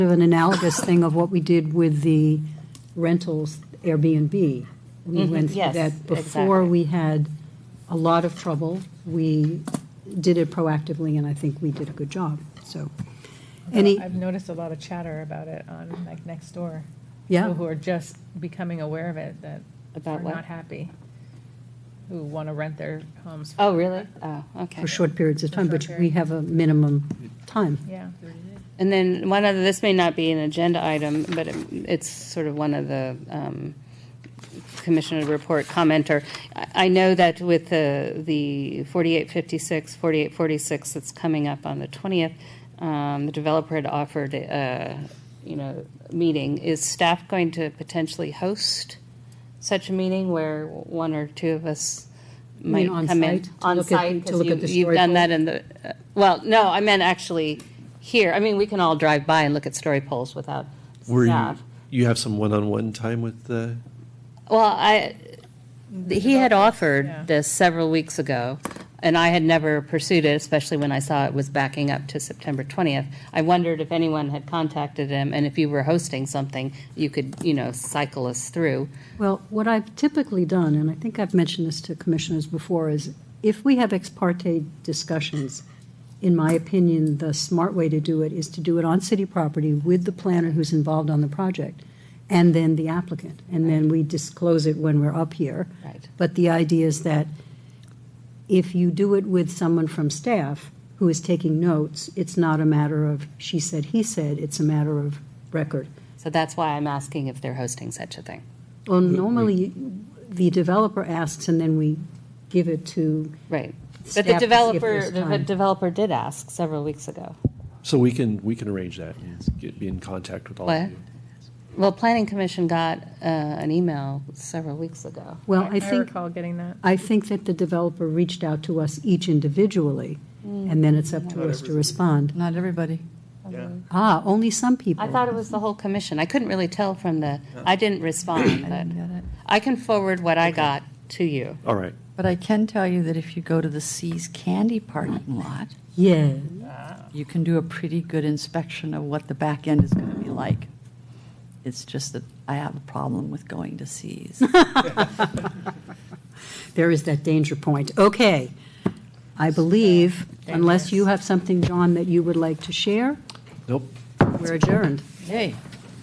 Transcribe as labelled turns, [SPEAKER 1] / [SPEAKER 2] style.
[SPEAKER 1] of an analogous thing of what we did with the rentals Airbnb. We went through
[SPEAKER 2] Mm-hmm. yes,
[SPEAKER 1] that before
[SPEAKER 2] exactly.
[SPEAKER 1] we had a lot of trouble. We did it proactively, and I think we did a good job, so. Any,
[SPEAKER 3] I've noticed a lot of chatter about it on like next door.
[SPEAKER 1] yeah,
[SPEAKER 3] People who are just becoming aware of it that
[SPEAKER 2] About
[SPEAKER 3] are
[SPEAKER 2] what?
[SPEAKER 3] not happy, who want to rent their homes.
[SPEAKER 2] Oh, really? Oh, okay.
[SPEAKER 1] for short periods of time,
[SPEAKER 3] short
[SPEAKER 1] but we have a minimum time.
[SPEAKER 3] Yeah.
[SPEAKER 2] And then one other, this may not be an agenda item, but it- it's sort of one of the um, commissioner report commenter. I I know that with the, the 4856, 4846 that's coming up on the 20th, um, the developer had offered, uh, you know, a meeting. Is staff going to potentially host such a meeting where one or two of us
[SPEAKER 1] You mean
[SPEAKER 2] might
[SPEAKER 1] on
[SPEAKER 2] come in?
[SPEAKER 1] site, to look at the- to
[SPEAKER 2] 'cause
[SPEAKER 1] look
[SPEAKER 2] you-
[SPEAKER 1] at the
[SPEAKER 2] You've done
[SPEAKER 1] storyboard?
[SPEAKER 2] that in the, uh, well, no, I meant actually here. I mean, we can all drive by and look at story polls without
[SPEAKER 4] Were you,
[SPEAKER 2] staff.
[SPEAKER 4] you have some one-on-one time with uh, the,
[SPEAKER 2] Well, I, he had
[SPEAKER 3] yeah.
[SPEAKER 2] offered this several weeks ago, and I had never pursued it, especially when I saw it was backing up to September 20th. I wondered if anyone had contacted him, and if you were hosting something, you could, you know, cycle us through.
[SPEAKER 1] Well, what I've typically done, and I think I've mentioned this to commissioners before, is if we have ex parte discussions, in my opinion, the smart way to do it is to do it on city property with the planner who's involved on the project, and then the applicant, and then we disclose it when we're up here.
[SPEAKER 2] Right.
[SPEAKER 1] But the idea is that if you do it with someone from staff who is taking notes, it's not a matter of she said, he said, it's a matter of record.
[SPEAKER 2] So that's why I'm asking if they're hosting such a thing.
[SPEAKER 1] Well, normally, the developer asks, and then we give it to,
[SPEAKER 2] Right.
[SPEAKER 1] Staff to see
[SPEAKER 2] But the
[SPEAKER 1] if
[SPEAKER 2] developer,
[SPEAKER 1] there's
[SPEAKER 2] the
[SPEAKER 1] time.
[SPEAKER 2] developer did ask several weeks ago.
[SPEAKER 4] so we can, we can arrange that and get, be in contact with all
[SPEAKER 2] What?
[SPEAKER 4] of you.
[SPEAKER 2] Well, Planning Commission got uh, an email several weeks ago.
[SPEAKER 1] well, I think,
[SPEAKER 3] recall getting that.
[SPEAKER 1] I think that the developer reached out to us each individually,
[SPEAKER 2] Hmm.
[SPEAKER 1] and then it's up to us to respond.
[SPEAKER 5] Not everybody.
[SPEAKER 1] Ah, only some people.
[SPEAKER 2] I thought it was the whole commission. I couldn't really tell from the, I didn't respond,
[SPEAKER 5] I didn't
[SPEAKER 2] but
[SPEAKER 5] get it.
[SPEAKER 2] I can forward what I got to you.
[SPEAKER 4] All right,
[SPEAKER 5] But I can tell you that if you go to the Seas Candy parking lot,
[SPEAKER 1] Yeah,
[SPEAKER 5] you can do a pretty good inspection of what the back end is going to be like. It's just that I have a problem with going to Seas.
[SPEAKER 1] there is that danger point. Okay. I believe, unless you have something, John, that you would like to share,
[SPEAKER 4] nope.
[SPEAKER 1] we're adjourned.
[SPEAKER 5] Hey.